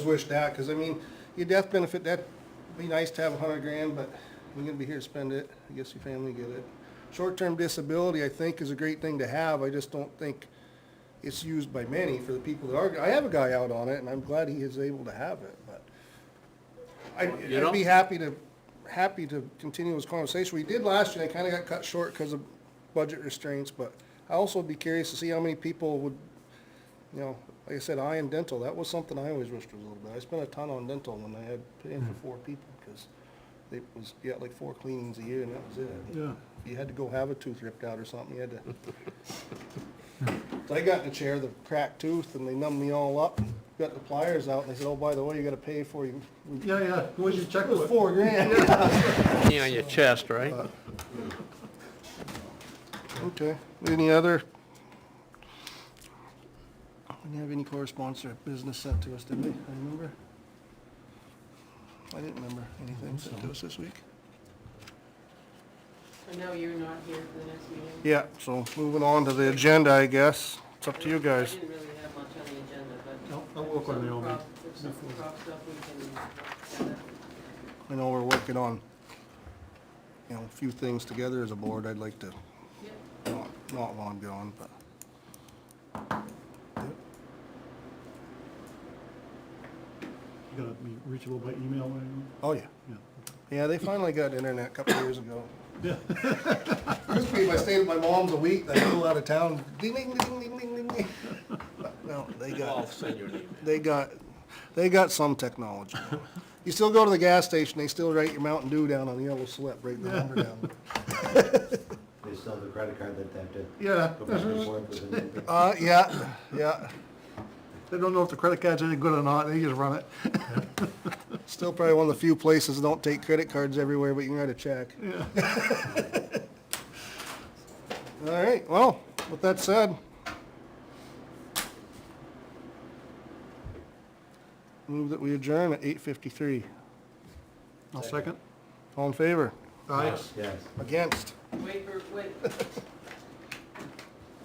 wish that, because I mean, your death benefit, that'd be nice to have a hundred grand, but we're gonna be here to spend it. I guess your family get it. Short-term disability, I think, is a great thing to have. I just don't think it's used by many for the people that are, I have a guy out on it, and I'm glad he is able to have it, but I'd, You I'd know? be happy to, happy to continue this conversation. We did last year, and it kinda got cut short because of budget restraints, but I also would be curious to see how many people would you know, like I said, eye and dental, that was something I always wished was a little bit. I spent a ton on dental when I had put in for four people, because it was, you got like four cleanings a year and that was it. Yeah. You had to go have a tooth ripped out or something, you had to. So I got in the chair, the cracked tooth, and they numbed me all up, got the pliers out, and they said, oh, by the way, you gotta pay for you. Yeah, yeah, where's your It was checkbook? four grand. knee on your chest, right? Okay, any other? We didn't have any correspondence or business sent to us, did we? I remember. I didn't remember anything sent to us this week. I know you're not here for the next meeting. Yeah, so moving on to the agenda, I guess. It's up to you I guys. didn't really have much on the agenda, but. No, I'll work on the old one. If something crops up, we can, uh, yeah, I know we're working on, you know, a few things together as a board. I'd like to yeah. not, not long gone, but. You gotta be reachable by email or anything? Oh, yeah. Yeah. Yeah, they finally got internet a couple years ago. Yeah. Used to be if I stayed at my mom's a week, I flew out of town, ding, ding, ding, ding, ding, ding, ding. No, they I'll got, send you an email. they got, they got some technology. You still go to the gas station, they still write your Mountain Dew down on the yellow slip, write the number down. They still have the credit card that they have to Yeah, go back and forth with. and- Uh, yeah, yeah, they don't know if the credit card's any good or not, they just run it. still probably one of the few places that don't take credit cards everywhere, but you can write a check. Yeah. All right, well, with that said. Move that we adjourn at eight fifty-three. I'll second. All in favor? Aye. Yes. Against? Wait for, wait,